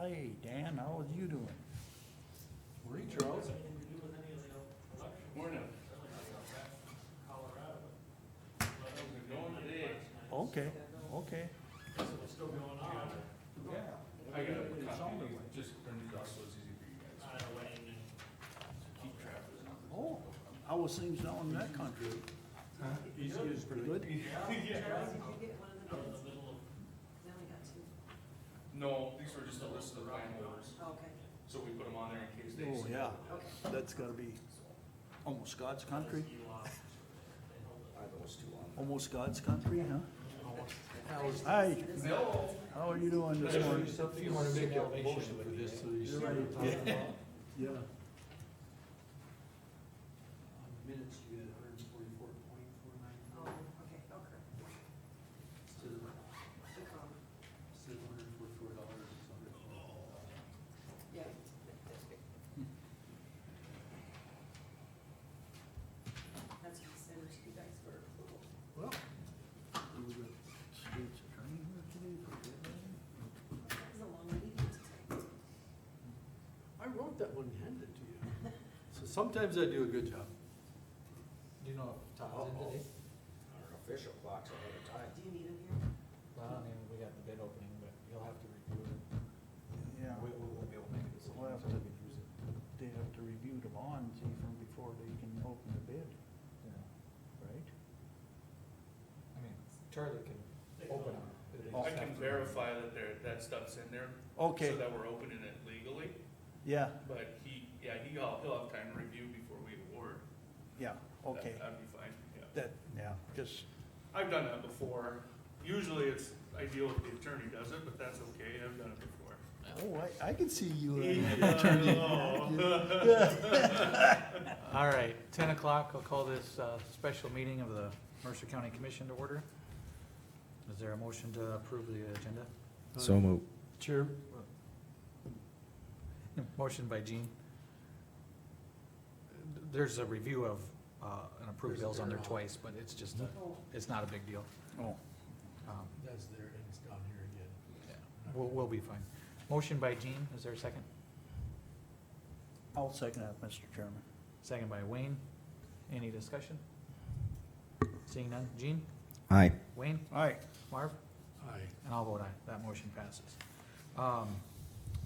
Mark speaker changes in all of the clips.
Speaker 1: Hey, Dan, how is you doing?
Speaker 2: Morning, Charles. Morning. How's it going today?
Speaker 1: Okay, okay.
Speaker 2: I got a copy, just printed off so it's easy for you guys. to Keep track of it.
Speaker 1: Oh, how was things down in that country? Easy is pretty good.
Speaker 3: Charles, did you get one of the bids? We only got two.
Speaker 2: No, these were just a list of the line orders,
Speaker 3: Okay,
Speaker 2: so we put them on there in case they.
Speaker 1: Oh, yeah,
Speaker 3: okay.
Speaker 1: that's gotta be almost God's country,
Speaker 2: Are those two on?
Speaker 1: almost God's country, huh? Hi,
Speaker 2: No.
Speaker 1: how are you doing this morning?
Speaker 4: If you wanna make a motion for this, so you see what I'm talking about.
Speaker 1: Yeah,
Speaker 4: On the minutes, you had hundred and forty-four point four nine
Speaker 3: Oh,
Speaker 4: four
Speaker 3: okay, okay.
Speaker 4: instead of,
Speaker 3: Good call.
Speaker 4: instead of hundred and forty-four dollars, it's hundred and forty-four.
Speaker 3: Yeah. That's what I sent it to you guys for approval.
Speaker 1: well. we were the State's attorney here today for good reason.
Speaker 3: That was a long meeting today.
Speaker 4: I wrote that one and handed it to you. So sometimes I do a good job. Do you know if Todd's in today?
Speaker 5: Our official clock's ahead of time.
Speaker 3: Do you need him here?
Speaker 6: Well, I mean, we got the bid opening, but you'll have to review it.
Speaker 1: Yeah,
Speaker 6: We, we won't be able to make it this
Speaker 1: We'll
Speaker 6: long,
Speaker 1: have
Speaker 6: so
Speaker 1: to-
Speaker 6: we can use it.
Speaker 1: they have to review the bond, see from before they can open the bid,
Speaker 6: Yeah.
Speaker 1: right?
Speaker 6: I mean, Charlie can open them. but they
Speaker 2: I
Speaker 6: just have
Speaker 2: can
Speaker 6: to-
Speaker 2: verify that there, that stuff's in there.
Speaker 1: Okay,
Speaker 2: So that we're opening it legally,
Speaker 1: yeah,
Speaker 2: but he, yeah, he'll, he'll have time to review before we award.
Speaker 1: yeah,
Speaker 2: That-
Speaker 1: okay,
Speaker 2: That'd be fine, yeah.
Speaker 1: that, yeah, just,
Speaker 2: I've done that before. Usually it's, I deal with the attorney does it, but that's okay, I've done it before. uh,
Speaker 1: oh, I, I can see you. in
Speaker 2: Yeah,
Speaker 1: that.
Speaker 2: I know.
Speaker 6: All right, ten o'clock, I'll call this, uh, special meeting of the Mercer County Commission to order. Is there a motion to approve the agenda?
Speaker 4: So
Speaker 5: moved.
Speaker 4: Uh, Chair,
Speaker 6: Motion by Gene. There's a review of, uh, an approved bills on there twice, but it's just, a-
Speaker 3: Oh,
Speaker 6: it's not a big deal.
Speaker 1: Oh,
Speaker 6: Um,
Speaker 4: that's there and it's down here again.
Speaker 6: We'll, we'll be fine. Motion by Gene, is there a second?
Speaker 1: I'll second that, Mr. Chairman.
Speaker 6: Second by Wayne. Any discussion? Seeing none. Gene,
Speaker 5: Aye.
Speaker 6: Wayne,
Speaker 1: All right,
Speaker 6: Marv,
Speaker 4: Aye.
Speaker 6: and I'll vote aye. That motion passes. Um,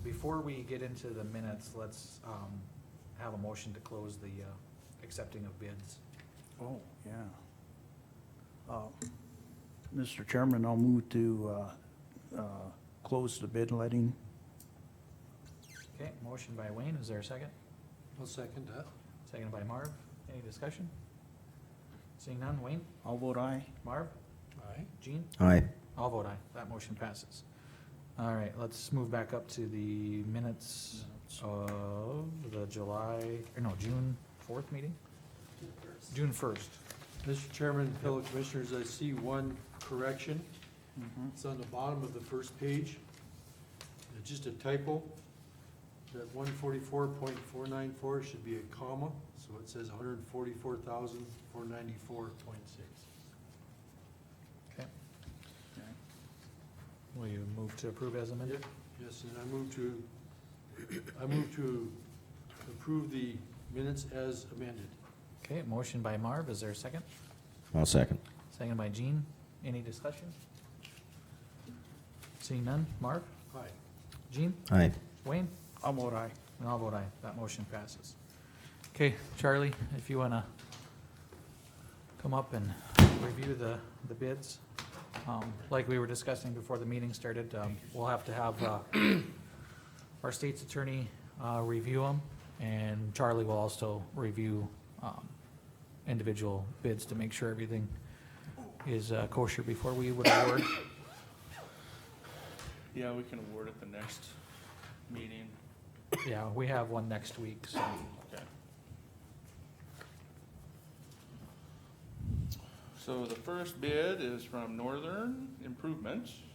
Speaker 6: Before we get into the minutes, let's um, have a motion to close the uh, accepting of bids.
Speaker 1: oh, yeah. Uh, Mr. Chairman, I'll move to, uh, uh, close the bid letting.
Speaker 6: Okay, motion by Wayne, is there a second?
Speaker 4: I'll second that.
Speaker 6: Second by Marv. Any discussion? Seeing none. Wayne,
Speaker 1: I'll vote aye.
Speaker 6: Marv,
Speaker 4: Aye.
Speaker 6: Gene?
Speaker 5: Aye.
Speaker 6: I'll vote aye. That motion passes. All right, let's move back up to the minutes
Speaker 1: Oh.
Speaker 6: of the July, or no, June fourth meeting?
Speaker 3: June first.
Speaker 6: June first.
Speaker 4: Mr. Chairman, fellow commissioners, I see one correction.
Speaker 1: Mhm.
Speaker 4: It's on the bottom of the first page. It's just a typo. That one forty-four point four nine four should be a comma, so it says 144,494.6.
Speaker 6: Okay.
Speaker 1: Okay.
Speaker 6: Will you move to approve as amended?
Speaker 4: Yes, and I move to, I move to approve the minutes as amended.
Speaker 6: Okay, motion by Marv. Is there a second?
Speaker 5: I'll second.
Speaker 6: Second by Gene. Any discussion? Seeing none. Marv,
Speaker 4: Aye.
Speaker 6: Gene,
Speaker 5: Aye.
Speaker 6: Wayne,
Speaker 1: I'll vote aye.
Speaker 6: and I'll vote aye. That motion passes. Okay, Charlie, if you wanna come up and review the, the bids. Um, Like we were discussing before the meeting started, um, we'll have to have uh, our state's attorney uh, review them, and Charlie will also review um, individual bids to make sure everything is uh, kosher before we would award.
Speaker 2: Yeah, we can award it the next meeting.
Speaker 6: Yeah, we have one next week, so.
Speaker 2: Okay. So the first bid is from Northern Improvements Uh,